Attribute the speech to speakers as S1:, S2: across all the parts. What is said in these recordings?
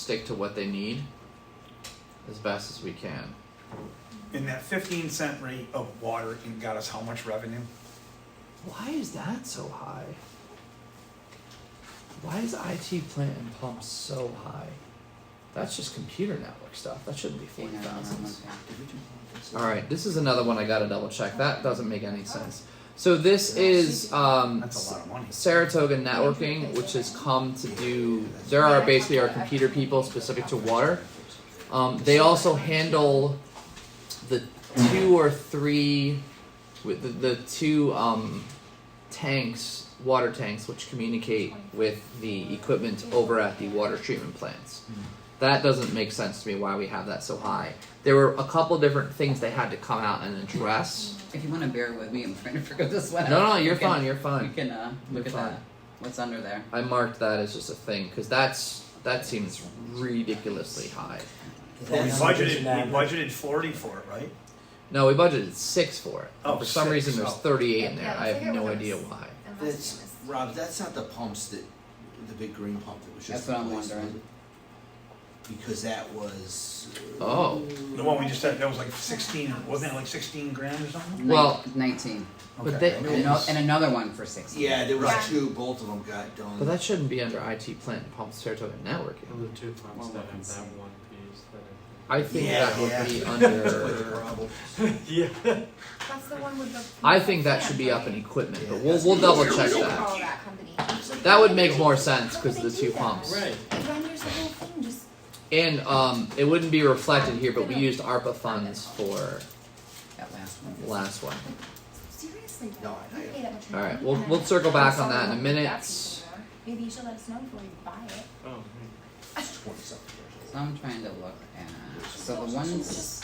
S1: stick to what they need as best as we can.
S2: And that fifteen cent rate of water can got us how much revenue?
S1: Why is that so high? Why is IT plant and pump so high? That's just computer network stuff. That shouldn't be forty thousands. All right, this is another one I gotta double check. That doesn't make any sense. So this is um,
S2: That's a lot of money.
S1: Saratoga Networking, which has come to do. There are basically our computer people specific to water. Um, they also handle the two or three, with the, the two um, tanks, water tanks, which communicate with the equipment over at the water treatment plants. That doesn't make sense to me why we have that so high. There were a couple different things they had to come out and address.
S3: If you want to bear with me, I'm trying to figure this one out.
S1: No, no, you're
S3: You can-
S1: fine, you're fine.
S3: You can uh,
S1: You're
S3: look at
S1: fine.
S3: that. What's under there?
S1: I marked that as just a thing because that's that seems ridiculously high.
S2: We budgeted, we budgeted forty for it, right?
S1: No, we budgeted six for it.
S2: Oh,
S1: for some
S2: six,
S1: reason, there's
S2: oh.
S1: 38 in there.
S4: Yeah,
S1: I
S4: it's
S1: have
S4: like it
S1: no
S4: was-
S1: idea why.
S4: Unless it
S5: That's,
S4: was-
S5: Rob, that's not the pumps that, the big green pump that was just.
S3: That's what I'm
S5: replaced.
S3: wondering.
S5: Because that was. uh,
S1: Oh.
S2: The one we just said, that was like sixteen, or- wasn't it like sixteen grand or something?
S3: Nin-
S1: Well-
S3: 19.
S1: But
S2: Okay.
S1: they-
S3: And, ano- and another one for 60.
S5: Yeah, there was
S4: Right.
S5: two, both of them got done.
S1: But that shouldn't be under IT plant and pump Saratoga networking.
S6: Well, the two pumps
S3: Well,
S6: that have
S3: let's
S6: that
S3: see.
S6: one piece that
S1: I think
S5: Yeah,
S1: that would
S5: yeah.
S1: be
S5: That's quite the
S1: under.
S5: problem.
S6: I think. yeah.
S4: That's the one with the.
S1: I think that should be up in
S4: Right?
S1: equipment, but
S5: Yeah,
S1: we'll
S5: that's
S1: we'll
S5: the-
S1: double
S4: What
S1: check
S4: do you
S1: that.
S4: call that company? Like,
S1: That would
S4: they-
S1: make more sense
S4: How
S1: because
S4: do
S1: the
S4: they
S1: two
S4: do that?
S1: pumps.
S6: Right.
S4: It renders the whole thing just.
S1: And um, it wouldn't be reflected here, but we used ARPA funds for
S3: That last one.
S1: last one.
S4: Seriously?
S5: No,
S4: though,
S5: I-
S4: you pay that much
S1: All right,
S4: money
S1: we'll-
S4: and
S1: we'll circle back
S4: then
S1: on that in a
S4: someone will
S1: minute.
S4: ask you for it. Maybe you should let us know before you buy it.
S6: Oh, right.
S5: It's 20-something years
S3: So I'm trying to look at. So the ones.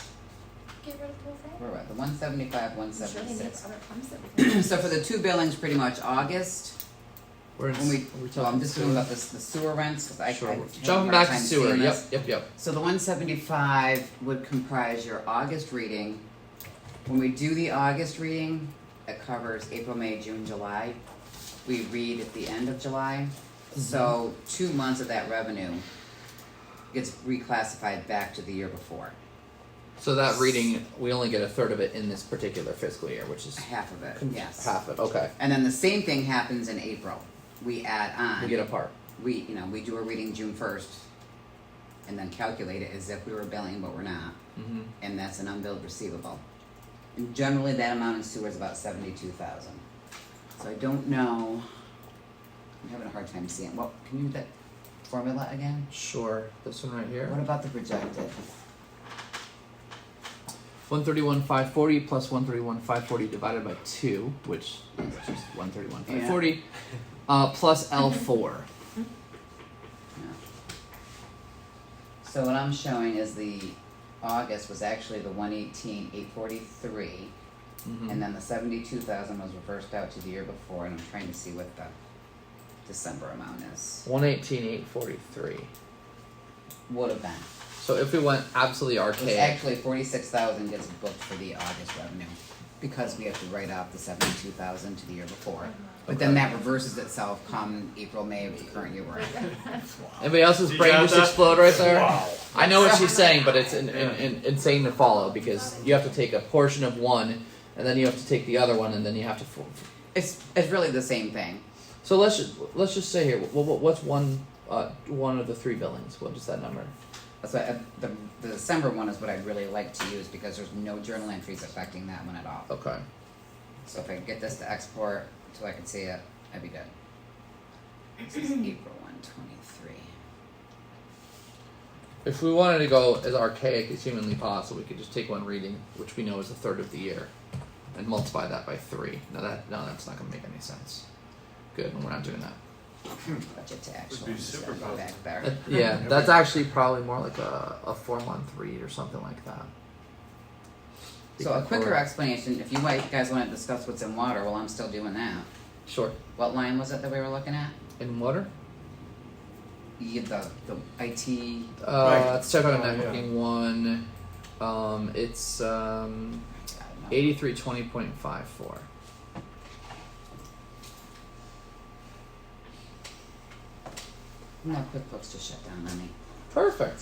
S4: Get rid of the whole thing.
S3: Where were we? The 175,
S4: I'm sure they make
S3: 176.
S4: other pumps that we can-
S3: so for the two billings, pretty much August.
S1: We're in.
S3: When we,
S1: are we
S3: well, I'm
S1: talking
S3: just
S1: sewer?
S3: doing about this, the sewer rents. 'cause I, I
S1: Sure.
S3: have a
S1: Jumping
S3: hard
S1: back to
S3: time
S1: sewer.
S3: seeing
S1: Yep,
S3: this.
S1: yep, yep.
S3: So the one seventy-five would comprise your August reading. When we do the August reading, it covers April, May, June, July. We read at the end of July,
S1: Mm-hmm.
S3: so two months of that revenue gets reclassified back to the year before,
S1: So that reading, we only get a third of it in this particular fiscal year, which is
S3: half of it,
S1: con-
S3: Uh, yes.
S1: half it. Okay,
S3: And then the same thing happens in April. We add on.
S1: we get a part.
S3: we, you know, we do a reading June first and then calculate it as if we were billing, but we're not.
S1: Mhm.
S3: And that's an unbilled receivable. And generally, that amount in sewer is about seventy-two thousand. So I don't know, I'm having a hard time seeing, well, can you do that formula again?
S1: Sure. This one right
S3: What
S1: here.
S3: about the projected?
S1: One thirty-one five forty plus one thirty-one five forty divided by two, which is just one thirty-one five forty, uh, plus L four.
S3: No. So what I'm showing is the August was actually the one eighteen, eight forty-three.
S1: Mm-hmm.
S3: And then the seventy-two thousand was reversed out to the year before, and I'm trying to see what the December amount is.
S1: One eighteen eight forty-three.
S3: Would have been.
S1: So if we went absolutely
S3: It was
S1: archaic,
S3: actually forty-six thousand gets booked for the August revenue, because we have to write off the seventy-two thousand to the year before. But then
S1: Okay.
S3: that reverses itself come April, May of the current year we're in.
S1: anybody else's
S6: You
S1: brain
S6: got
S1: just
S6: that?
S1: explode right there.
S2: Wow.
S1: I know what she's saying, but it's in, in,
S6: Yeah.
S1: in, insane to follow because you have to take a portion of one, and then you have to take the other one, and then you have to. F-
S3: It's, it's really the same thing.
S1: so let's just, let's just say here, what, what, what's one uh, one of the three billings? What is that number?
S3: That's why, uh, the, the December one is what I'd really like to use, because there's no journal entries affecting that one at all.
S1: Okay.
S3: So if I can get this to export so I can see it, I'd be good. This is April one twenty-three.
S1: If we wanted to go as archaic as humanly possible, we could just take one reading, which we know is a third of the year, and multiply that by three. Now that no, that's not going to make any sense. Good, and we're not doing that.
S3: Budget to actual.
S6: be
S3: I'm just gonna
S6: super
S3: go back
S6: positive.
S1: That-
S3: there.
S1: Uh, yeah, that's actually probably more like a, a four month read or something like that.
S3: So a quicker
S1: Or-
S3: explanation, if you white guys wanna discuss what's in water, well, I'm still doing that.
S1: Sure.
S3: What line was it that we were looking at?
S1: In water?
S3: You get the, the IT,
S1: Uh, let's check out
S6: Oh, yeah.
S1: networking one. Um, it's um,
S3: I don't know.
S1: eighty-three twenty point five four.
S3: No, QuickBooks just shut down on me.
S1: Perfect.